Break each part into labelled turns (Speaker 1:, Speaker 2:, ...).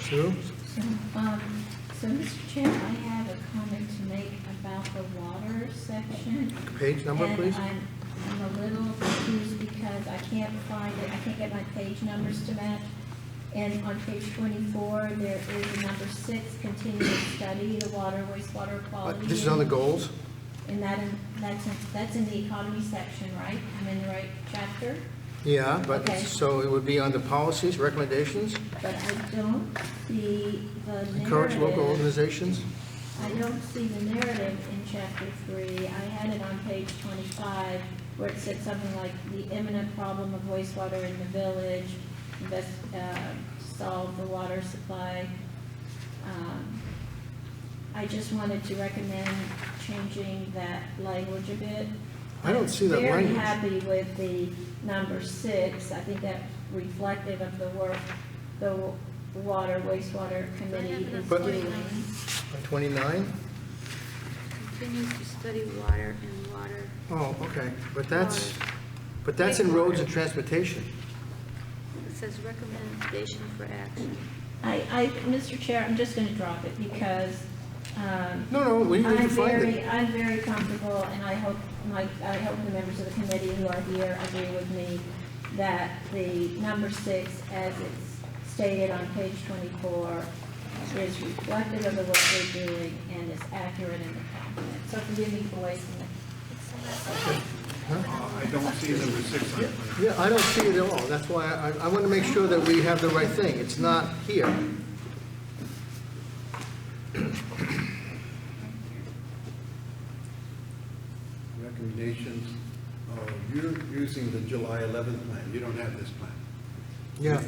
Speaker 1: Sue?
Speaker 2: So, um, so Mr. Chair, I have a comment to make about the water section.
Speaker 1: Page number,
Speaker 2: And
Speaker 1: please? Uh,
Speaker 2: I'm, I'm a little confused because I can't find it, I can't get my page numbers to match. And on page twenty-four, there is a number six, continued study, the water wastewater
Speaker 1: Uh,
Speaker 2: quality.
Speaker 1: This is on the goals?
Speaker 2: And that, in- that's, in- that's in the economy section, right? I'm in the right chapter?
Speaker 1: Yeah, but,
Speaker 2: Okay.
Speaker 1: so it would be on the policies, recommendations,
Speaker 2: But I don't see the narrative.
Speaker 1: encourage local organizations?
Speaker 2: I don't see the narrative in chapter three. I had it on page twenty-five, where it said something like, the imminent problem of wastewater in the village, invest, uh, solve the water supply. Um, I just wanted to recommend changing that language a bit.
Speaker 1: I don't see that
Speaker 2: Very
Speaker 1: language.
Speaker 2: happy with the number six. I think that's reflective of the work the water wastewater committee is
Speaker 1: But-
Speaker 2: doing.
Speaker 1: On 29?
Speaker 3: Continues to study water and water.
Speaker 1: Oh, okay, but that's, but that's in roads and transportation.
Speaker 3: It says recommendation for action.
Speaker 2: I, I, Mr. Chair, I'm just going to drop it because um,
Speaker 1: No, no, we need
Speaker 2: I'm
Speaker 1: to find
Speaker 2: very,
Speaker 1: it.
Speaker 2: I'm very comfortable, and I hope, my, I hope the members of the committee who are here agree with me that the number six, as it's stated on page 24, is reflective of the work we're doing and is accurate in the document. So forgive me for wasting it.
Speaker 4: I don't see number six on it.
Speaker 1: Yeah, I don't see it at all, that's why I, I want to make sure that we have the right thing, it's not here.
Speaker 4: Recommendations, oh, you're using the July 11th plan, you don't have this plan.
Speaker 1: Yeah,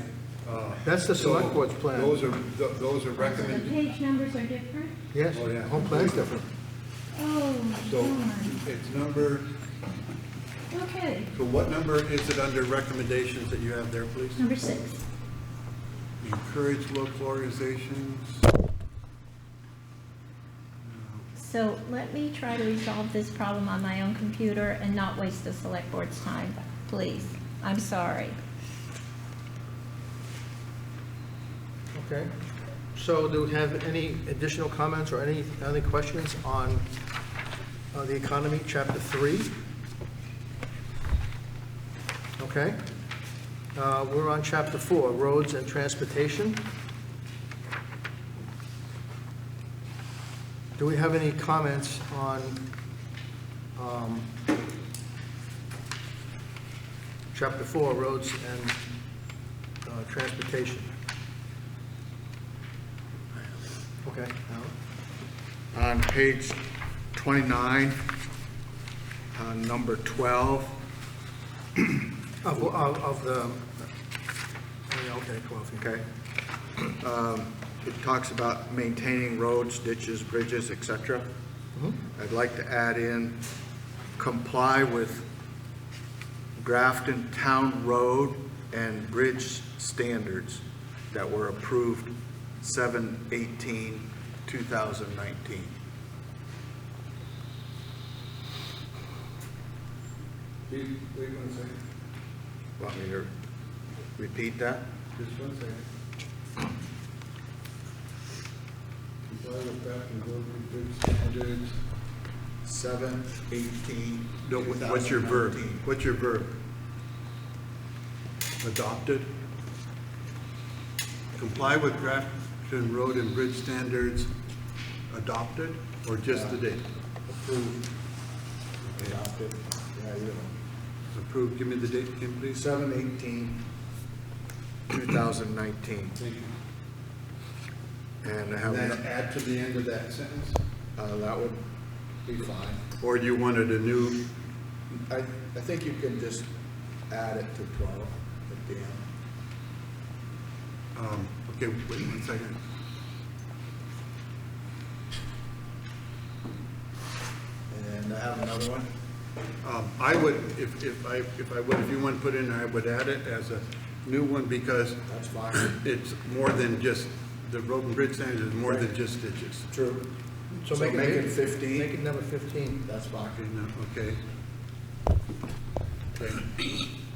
Speaker 4: Uh,
Speaker 1: That's the select board's plan.
Speaker 4: Those are, th- those are
Speaker 2: So the
Speaker 4: recommended,
Speaker 2: page numbers are different?
Speaker 1: yes,
Speaker 4: Oh, yeah.
Speaker 1: whole plan's different.
Speaker 2: Oh,
Speaker 4: so
Speaker 2: darn.
Speaker 4: it's number,
Speaker 2: Okay,
Speaker 4: so what number is it under recommendations that you have there, please?
Speaker 2: number six.
Speaker 4: Encourage local organizations.
Speaker 2: So let me try to resolve this problem on my own computer and not waste the select board's time, please. I'm sorry.
Speaker 1: Okay. So do we have any additional comments or any, any questions on uh, the economy, chapter three? Okay. Uh, We're on chapter four, roads and transportation. Do we have any comments on um, chapter four, roads and uh, transportation? Okay, Alan?
Speaker 5: On page 29, on uh, number 12,
Speaker 1: Of, of, of the, oh, yeah, okay, 12, yeah.
Speaker 5: okay, um, it talks about maintaining roads, ditches, bridges, et cetera. I'd like to add in comply with Grafton Town Road and Bridge standards that were approved 7/18/2019.
Speaker 4: Wait one second,
Speaker 5: Want me to repeat that?
Speaker 4: just one second. Comply with Grafton Road Bridge standards.
Speaker 5: Seven, eighteen.
Speaker 4: No, wha- what's your verb? What's your verb? Adopted? Comply with Grafton Road and Bridge standards, adopted, or just the date?
Speaker 5: Approved. Adopted. Yeah, you know.
Speaker 4: Approved, give me the date, Kim, please.
Speaker 5: Seven, eighteen, two thousand nineteen.
Speaker 4: Thank you.
Speaker 5: And I
Speaker 4: And then
Speaker 5: have,
Speaker 4: add to the end of that sentence,
Speaker 5: uh, that would be fine.
Speaker 4: or you wanted a new,
Speaker 5: I, I think you can just add it to twelve at the end.
Speaker 4: um, okay, wait one second.
Speaker 5: And I have another one.
Speaker 4: Um, I would, if, if I, if I would, if you want to put in, I would add it as a new one, because
Speaker 5: That's fine.
Speaker 4: it's more than just, the road and bridge standards is more than just ditches.
Speaker 5: True. So make it 15.
Speaker 1: Make it number 15.
Speaker 5: That's fine.
Speaker 4: Okay, now, okay. Okay.